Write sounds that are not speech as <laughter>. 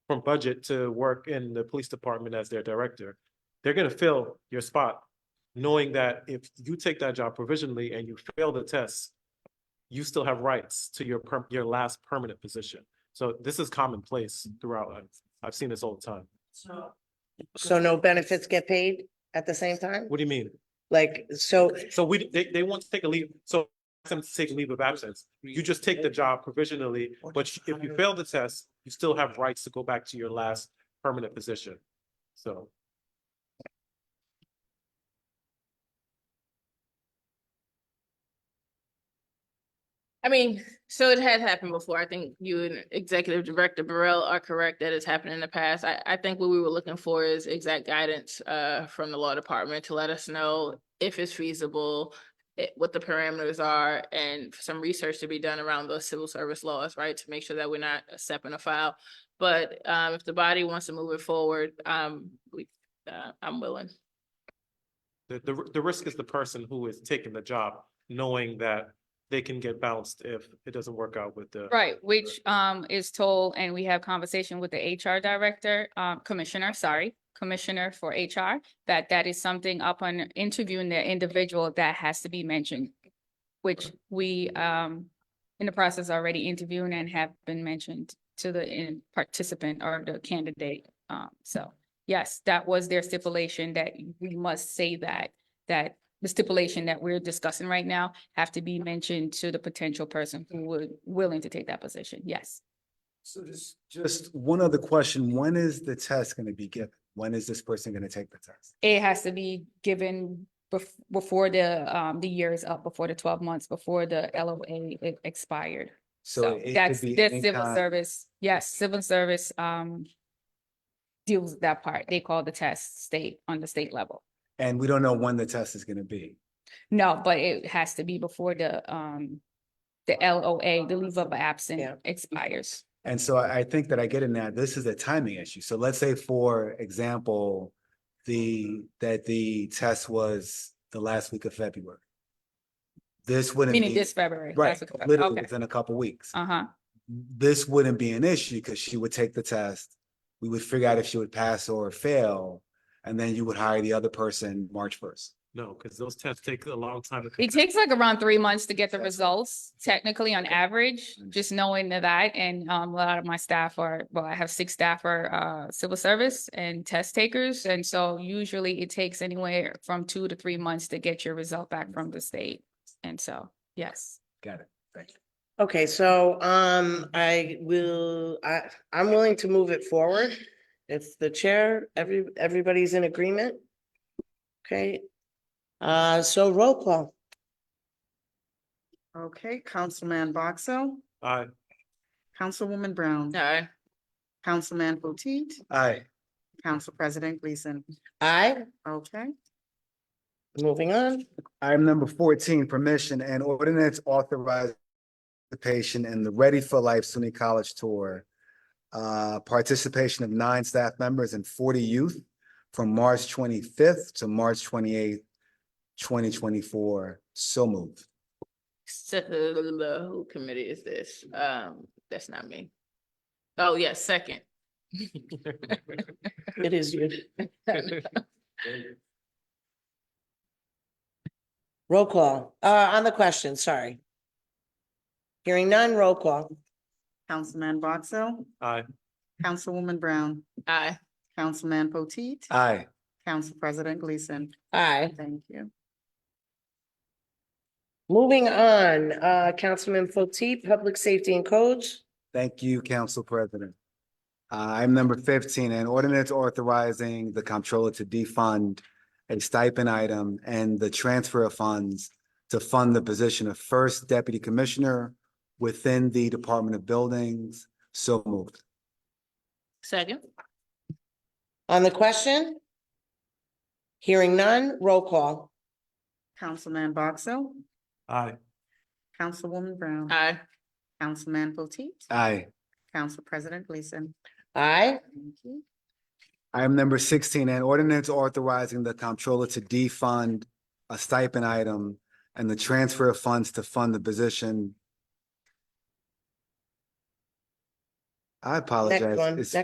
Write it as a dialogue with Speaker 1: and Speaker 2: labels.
Speaker 1: from budget to work in the police department as their director, they're gonna fill your spot, knowing that if you take that job provisionally and you fail the test, you still have rights to your per, your last permanent position. So this is commonplace throughout. I've, I've seen this all the time.
Speaker 2: So no benefits get paid at the same time?
Speaker 1: What do you mean?
Speaker 2: Like, so,
Speaker 1: So we, they, they want to take a leave, so ask them to take leave of absence. You just take the job provisionally, but you- if you fail the test, you still have rights to go back to your last permanent position. So.
Speaker 3: I mean, so it had happened before. I think you and Executive Director Burrell are correct that it's happened in the past. I, I think what we were looking for is exact guidance uh, from the law department to let us know if it's feasible, it- what the parameters are, and for some research to be done around those civil service laws, right? To make sure that we're not stepping a file. But um, if the body wants to move it forward, um, we, uh, I'm willing.
Speaker 1: The, the, r- the risk is the person who is taking the job, knowing that they can get bounced if it doesn't work out with the.
Speaker 4: Right, which um is told, and we have conversation with the HR director, um commissioner, sorry, commissioner for HR, that that is something upon interviewing the individual that has to be mentioned, which we um in the process already interviewing and have been mentioned to the in- participant or the candidate. Um, so, yes, that was their stipulation that we must say that, that the stipulation that we're discussing right now have to be mentioned to the potential person who would willing to take that position. Yes.
Speaker 5: So just, just one other question. When is the test going to be given? When is this person going to take the test?
Speaker 4: It has to be given bef- before the um the year is up, before the twelve months, before the LOA e- expired. So
Speaker 5: it could
Speaker 4: that's
Speaker 5: be
Speaker 4: that's
Speaker 5: any
Speaker 4: civil
Speaker 5: kind-
Speaker 4: service. Yes, civil service um deals with that part. They call the test state on the state level.
Speaker 5: And we don't know when the test is going to be.
Speaker 4: No, but it has to be before the um the LOA, the leave of
Speaker 2: Yeah.
Speaker 4: absence expires.
Speaker 5: And so I, I think that I get in that this is a timing issue. So let's say, for example, the, that the test was the last week of February. This wouldn't
Speaker 4: Meaning
Speaker 5: be,
Speaker 4: this February.
Speaker 5: right,
Speaker 4: last week of Feb-
Speaker 5: literally
Speaker 4: Okay.
Speaker 5: within a couple weeks.
Speaker 4: Uh-huh.
Speaker 5: This wouldn't be an issue because she would take the test. We would figure out if she would pass or fail. And then you would hire the other person March first.
Speaker 1: No, because those tests take a long time. to
Speaker 4: It
Speaker 1: conduct.
Speaker 4: takes like around three months to get the
Speaker 5: Gotcha.
Speaker 4: results technically on average, just knowing that and um a lot of my staff are, well, I have six staff are uh civil service and test takers. And so usually it takes anywhere from two to three months to get your result back from the state. And so, yes.
Speaker 5: Got it. Thank you.
Speaker 2: okay, so, um, I will, I, I'm willing to move it forward. If the chair, every, everybody's in agreement. Okay, uh, so roll call.
Speaker 6: Okay, Councilman Boxell,
Speaker 1: Uh,
Speaker 6: Councilwoman Brown,
Speaker 3: All right.
Speaker 6: Councilman Potteet,
Speaker 5: Aye.
Speaker 6: Council President Gleason.
Speaker 2: Aye,
Speaker 6: Okay,
Speaker 2: moving on.
Speaker 5: Item number fourteen, permission and ordinance authorizing participation in the Ready for Life SUNY College Tour. Uh, participation of nine staff members and forty youth from March twenty-fifth to March twenty-eighth, twenty twenty-four. So moved.
Speaker 3: Se- Who committee is this? Um, that's not me. Oh, yes, second. <laughs>
Speaker 2: It is you. Roll call, uh, on the question, sorry. Hearing none, roll call.
Speaker 6: Councilman Boxell,
Speaker 1: I,
Speaker 6: Councilwoman Brown,
Speaker 3: Aye.
Speaker 6: Councilman Potteet,
Speaker 5: Aye.
Speaker 6: Council President Gleason.
Speaker 2: Aye.
Speaker 6: Thank you.
Speaker 2: Moving on, uh, Councilman Potteet, Public Safety and Codes.
Speaker 5: Thank you, Council President. Uh, Item number fifteen, an ordinance authorizing the comptroller to defund a stipend item and the transfer of funds to fund the position of first deputy commissioner within the Department of Buildings. So moved.
Speaker 3: Second.
Speaker 2: On the question? Hearing none, roll call.
Speaker 6: Councilman Boxell,
Speaker 1: I,
Speaker 6: Councilwoman Brown,
Speaker 3: Aye.
Speaker 6: Councilman Potteet,
Speaker 5: Aye.
Speaker 6: Council President Gleason.
Speaker 2: Aye.
Speaker 6: Thank you.
Speaker 5: Item number sixteen, an ordinance authorizing the comptroller to defund a stipend item and the transfer of funds to fund the position. I apologize.
Speaker 2: one,
Speaker 5: It's-